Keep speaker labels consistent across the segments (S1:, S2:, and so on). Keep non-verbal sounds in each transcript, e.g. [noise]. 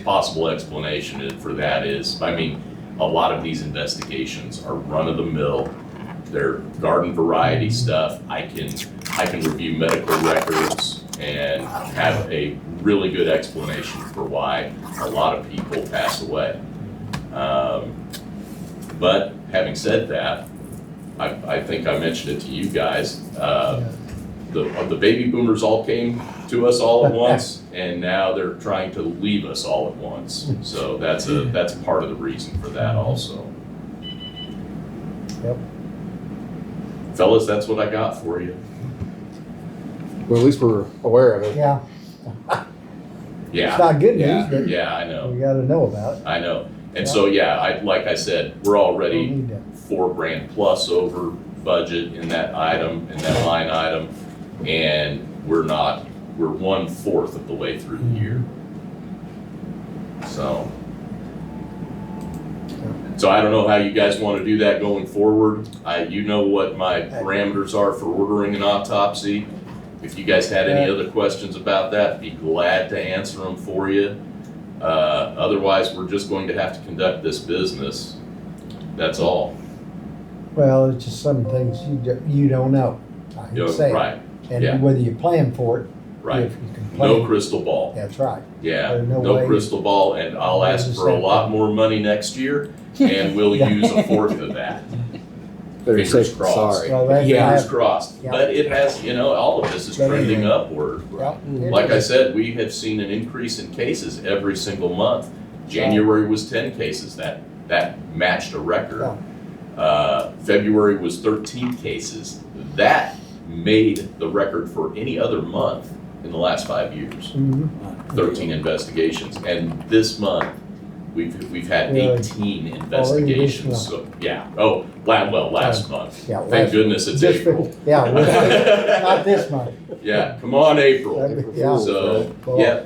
S1: possible explanation i- for that is, I mean, a lot of these investigations are run of the mill. They're garden variety stuff. I can, I can review medical records and have a really good explanation for why a lot of people pass away. Um, But having said that, I, I think I mentioned it to you guys, uh, the, uh, the baby boomers all came to us all
S2: [laughs]
S1: at once, and now they're trying to leave us all at once. So that's a, that's part of the reason for that also.
S2: Yep.
S1: Fellas, that's what I got for you.
S3: Well, at least we're aware of it.
S2: Yeah, it's
S1: Yeah,
S2: not good
S3: Yeah.
S2: news, but
S1: yeah, I know,
S2: we gotta know about it.
S1: I know. And so, yeah, I, like I said, we're
S2: We
S1: already
S2: need to-
S1: four grand plus over budget in that item, in that line item. And we're not, we're one fourth of the way through the year. So. So I don't know how you guys want to do that going forward. I, you know what my parameters are for ordering an autopsy. If you guys had any other questions about that, be glad to answer them for you. Uh, otherwise, we're just going to have to conduct this business. That's all.
S2: Well, it's just some things you, do- you don't know. I hate
S1: Yeah,
S2: to say it.
S1: Right, yeah.
S2: And whether you plan for it,
S1: right.
S2: if you can
S1: No
S2: plan,
S1: crystal ball.
S2: that's right.
S1: Yeah,
S2: There's no
S1: no
S2: way-
S1: crystal ball, and I'll ask for a lot more money next
S2: [laughs]
S1: year, and we'll
S2: Yeah.
S1: use a fourth of that.
S3: Better
S1: Fingers
S3: safe than
S1: crossed.
S3: sorry.
S2: Well, that-
S1: Fingers
S2: that-
S1: crossed.
S2: Yeah.
S1: But it has, you know, all of this is
S2: Better
S1: trending
S2: than-
S1: upward.
S2: yeah, it
S1: Like I
S2: is.
S1: said, we have seen an increase in cases every single month. January was ten cases, that, that matched a record. Uh, February was thirteen cases. That made the record for any other month in the last five years.
S2: Mhm.
S1: 13 investigations, and this month, we've, we've had
S2: Really?
S1: 18 investigations, so, yeah, oh, la, well, last month.
S2: Yeah,
S1: Thank
S2: last-
S1: goodness it's
S2: just for-
S1: April. [laughs]
S2: Yeah, well, [laughs] not this month.
S1: Yeah, come on, April,
S2: That'd be- Yeah,
S1: so,
S2: Well,
S1: yeah,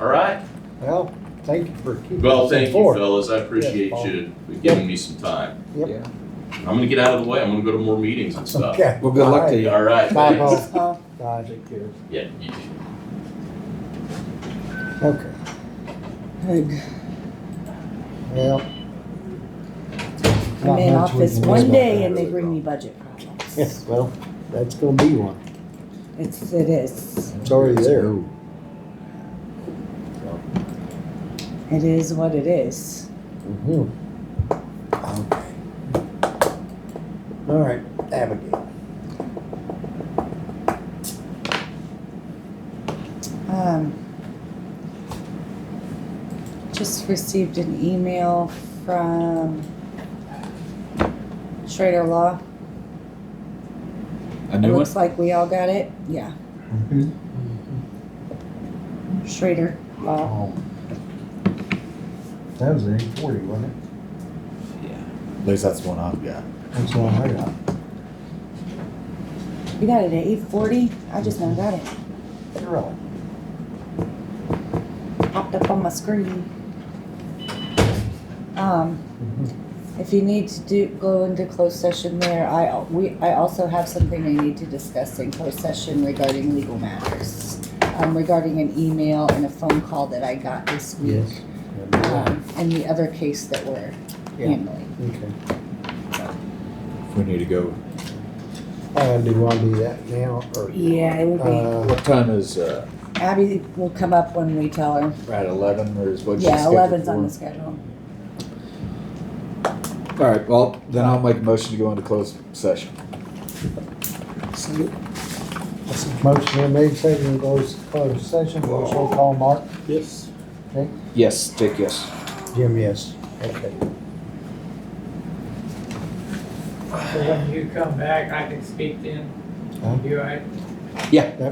S1: all right,
S2: well, thank you for keeping.
S1: well,
S2: us
S1: thank you,
S2: informed.
S1: fellas, I appreciate
S2: Paul.
S1: you giving me some time.
S2: Yep.
S3: Yeah.
S1: I'm gonna get out of the way, I'm gonna go to more meetings and stuff.
S2: Okay.
S3: Well, good
S2: All
S3: luck
S2: right.
S3: to you.
S1: All right,
S2: Bye,
S1: thanks.
S2: Paul. Bye.
S1: Yeah, you too.
S2: Okay,
S4: Good.
S2: well.
S4: I'm in office one day and they
S3: really
S4: bring me budget
S2: Yes,
S4: problems.
S2: well, that's gonna be one.
S4: It's, it is,
S2: It's already there.
S4: it is what it is.
S2: Mhm. Okay. All right, Abigail.
S4: Um, Just received an email from Schrader Law.
S5: A
S4: It
S5: new one?
S4: looks like we all got it, yeah.
S2: Mhm.
S4: Schrader Law,
S2: Oh. That was an eight forty, wasn't it?
S6: At least that's the one I've got.
S2: That's the one I got.
S4: you got it at eight forty? I just now got it,
S2: Really?
S4: popped up on my screen. Um,
S2: Mm-hmm.
S4: If you need to do, go into closed session there, I, al- we, I also have something I need to discuss in closed session regarding legal matters. Um, regarding an email and a phone call that I got this week,
S2: Yes.
S4: um, and the other case that we're
S2: Yeah.
S4: handling.
S2: Okay.
S6: If we need to go,
S2: Uh, do you want to do that now or?
S4: Yeah, it would be,
S2: Uh,
S6: what time is, uh,
S4: Abby will come up when we tell her,
S6: at eleven or is what?
S4: yeah, eleven's on the schedule.
S6: All right, well, then I'll make a motion to go into closed session.
S2: Motion been made, second goes to closed session, voice roll call, Mark?
S3: Yes.
S6: Yes, Dick, yes.
S2: Jim, yes. Okay.
S7: So when you come back, I can speak then?
S2: Huh?
S7: You all right?